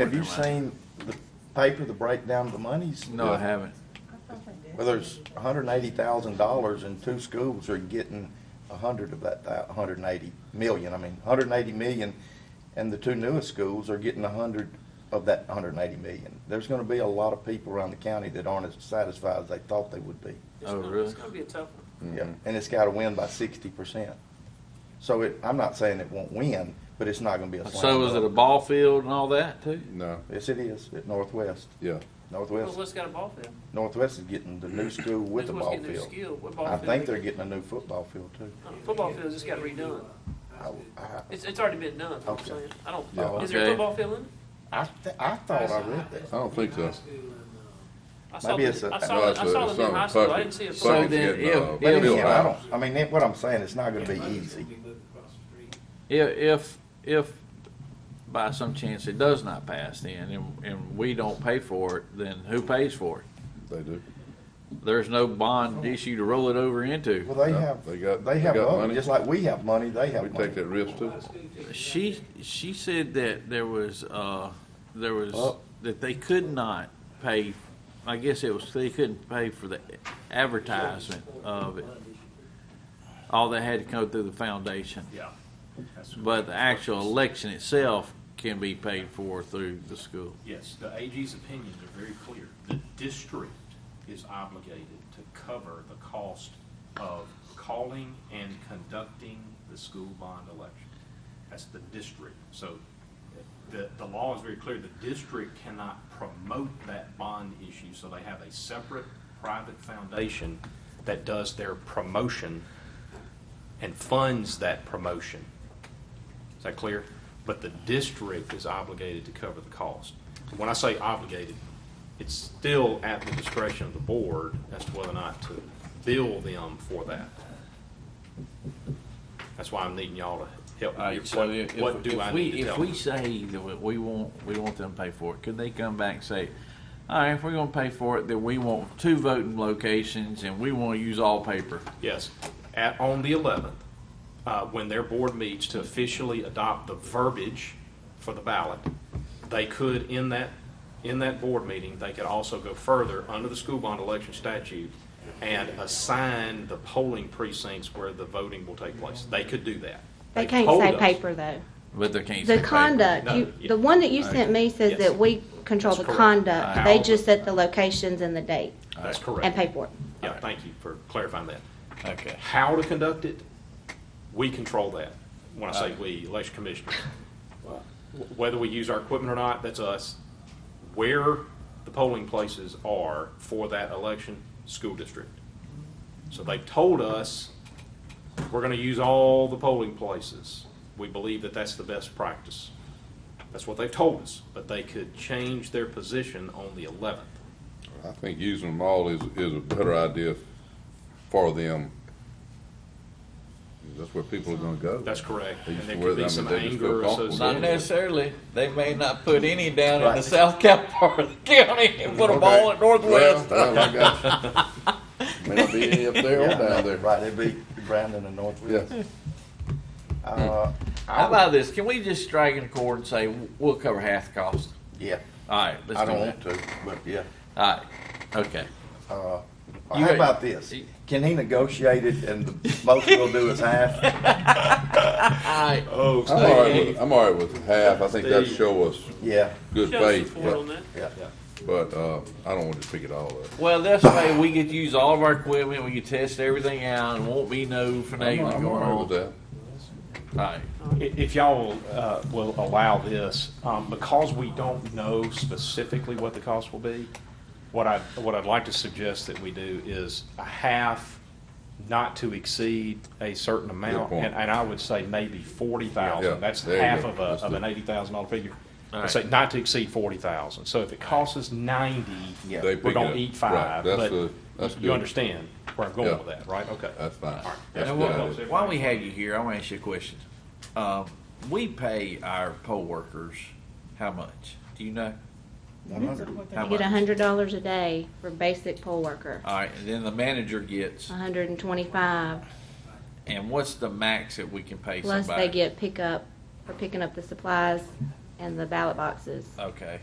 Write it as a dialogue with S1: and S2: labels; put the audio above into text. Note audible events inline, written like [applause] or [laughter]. S1: Have you seen the paper, the breakdown of the monies?
S2: No, I haven't.
S1: Well, there's hundred and eighty thousand dollars and two schools are getting a hundred of that, a hundred and eighty million, I mean, hundred and eighty million. And the two newest schools are getting a hundred of that hundred and eighty million. There's gonna be a lot of people around the county that aren't as satisfied as they thought they would be.
S3: It's
S2: Oh,
S3: gonna-
S2: really?
S3: It's gonna be a tough one.
S2: Mm-hmm.
S1: Yeah, and it's gotta win by sixty percent. So it, I'm not saying it won't win, but it's not gonna be a slam
S2: So is it a
S1: dunk.
S2: ball field and all that too?
S4: No,
S1: Yes, it is, at Northwest.
S4: yeah.
S3: Well,
S1: Northwest,
S3: what's got a ball field?
S1: Northwest is getting the new school with a
S3: Who's
S1: ball
S3: getting their
S1: field.
S3: skill? What ball
S1: I
S3: field?
S1: think
S3: they
S1: they're getting a new football field too.
S3: Uh, Football field just got redone.
S1: I, I,
S3: It's, it's already been done, I'm
S1: Okay.
S3: saying. I don't,
S4: Yeah.
S3: is there a
S2: Okay.
S3: football field in? it?
S1: I, th- I thought I read that.
S4: I don't think so.
S3: I saw
S1: Maybe
S3: the-
S1: it's a-
S3: I saw, the- I
S4: No, it's a-
S3: saw
S4: it's
S3: the new
S4: not a
S3: high school. I
S4: bucket.
S3: didn't see a.
S2: So
S3: football
S4: Bucket's
S2: then
S4: getting,
S2: if-
S4: uh,
S2: if-
S1: But
S4: built
S1: again, I
S4: out.
S1: don't, I mean, that- what I'm saying, it's not gonna be easy.
S2: If, if, if by some chance it does not pass then and, and we don't pay for it, then who pays for it?
S4: They do.
S2: There's no bond issue to roll it over into.
S1: Well, they
S4: No,
S1: have,
S4: they got-
S1: they
S4: they
S1: have
S4: got
S1: money,
S4: money.
S1: just like we have money, they
S4: We
S1: have money.
S4: take that risk too.
S2: She, she said that there was, uh, there was,
S1: Up.
S2: that they could not pay, I guess it was, they couldn't pay for the advertisement of it. All they had to go through the foundation.
S5: Yeah. That's-
S2: But the actual election itself can be paid for through the school.
S5: Yes, the AG's opinions are very clear. The district is obligated to cover the cost of calling and conducting the school bond election. That's the district. So the, the law is very clear. The district cannot promote that bond issue, so they have a separate private foundation that does their promotion and funds that promotion. Is that clear? But the district is obligated to cover the cost. When I say obligated, it's still at the discretion of the board as to whether or not to bill them for that. That's why I'm needing y'all to help me.
S2: Alright, so
S5: What-
S2: Uh, if,
S5: What do
S2: if
S5: I
S2: we,
S5: need to
S2: if
S5: tell
S2: we
S5: them?
S2: say that we- we want, we want them to pay for it, could they come back and say, all right, if we're gonna pay for it, then we want two voting locations and we wanna use all paper?
S5: Yes, at, on the eleventh, uh, when their board meets to officially adopt the verbiage for the ballot, they could, in that, in that board meeting, they could also go further under the school bond election statute and assign the polling precincts where the voting will take place. They could do that.
S6: They
S5: They've
S6: can't
S5: told
S6: say
S5: us-
S6: paper, though.
S2: But they can't say
S6: The
S2: paper.
S6: conduct,
S5: No,
S6: you,
S5: yeah.
S6: the one that you sent me says
S5: Yes.
S6: that we control the
S5: That's correct.
S6: conduct.
S5: Right.
S6: They just set the locations and the date
S5: That's
S6: and
S5: correct.
S6: pay for it.
S5: Yeah, thank you for clarifying that.
S2: Okay.
S5: How to conduct it, we control that. When
S4: Uh.
S5: I say we,
S4: [laughs]
S5: election commissioners. Wh- Whether we use our equipment or not, that's us. Where the polling places are for that election, school district. So they've told us, we're gonna use all the polling places. We believe that that's the best practice. That's what they've told us, but they could change their position on the eleventh.
S4: I think using them all is, is a better idea for them. That's where people are gonna go.
S5: That's correct.
S4: They
S5: And
S4: just
S5: there
S4: wear
S5: could
S4: them
S5: be
S4: and
S5: some
S4: they just feel
S5: anger
S4: comfortable. Not
S5: associated.
S2: necessarily. They may not put any down
S1: in the
S2: south cap [laughs] part of the county and put
S4: them all at Well, well, I got
S3: [laughs]
S4: you. May not be any up there
S1: Yeah,
S4: or down there.
S1: Right, it'd be Brandon and Northwest.
S4: Yeah. Hmm.
S1: Uh,
S2: How about this? Can we just drag it in court and say, we'll cover half the cost?
S1: yeah,
S2: All right, let's do that.
S1: I don't want to, but yeah.
S2: All right, okay.
S1: Uh,
S2: You-
S1: How about this? Can he negotiate it and the most we'll do is
S4: [laughs]
S1: half?
S2: All right.
S5: Oh,
S4: I'm all right with, I'm all right with half. I think that'd show us
S1: Yeah,
S4: good
S3: Show
S4: faith,
S3: support on
S4: but,
S3: that.
S1: yeah.
S4: but, uh, I don't want to pick it all up.
S2: Well, that's why we could use all of our equipment, we could test everything out, and won't be no
S4: I'm,
S2: finagling
S4: I'm
S2: going
S4: all right with
S2: on.
S4: that.
S2: Right.
S5: I- If y'all uh, will allow this, um, because we don't know specifically what the cost will be, what I, what I'd like to suggest that we do is a half, not to exceed a certain amount.
S4: point.
S5: And, and I would say maybe forty
S4: Yeah,
S5: thousand. That's
S4: there you
S5: half
S4: go.
S5: of a,
S4: Let's
S5: of
S4: do
S5: an
S4: it.
S5: eighty thousand dollar figure.
S2: All
S5: I'd
S2: right.
S5: say not to exceed forty thousand. So if it costs us ninety,
S1: Yeah.
S4: They
S5: we're
S4: pick it
S5: gonna
S4: up.
S5: eat
S4: Right,
S5: five,
S4: that's
S5: but
S4: the- that's
S5: you
S4: good.
S5: understand where I'm going
S4: Yeah.
S5: with that, right? Okay.
S4: That's fine. That's
S2: And
S4: good.
S2: while,
S4: idea.
S2: while we have you here, I want to ask you a question. Um, we pay our poll workers how much? Do you know?
S1: One hundred.
S2: How
S6: You
S2: much?
S6: get hundred dollars a day for basic poll worker,
S5: Uh,
S2: All right, and then the manager gets,
S6: hundred and twenty-five,
S2: and what's the max that we can pay
S6: plus
S2: somebody?
S6: they get pickup for picking up the supplies
S7: and the ballot boxes.
S6: Okay.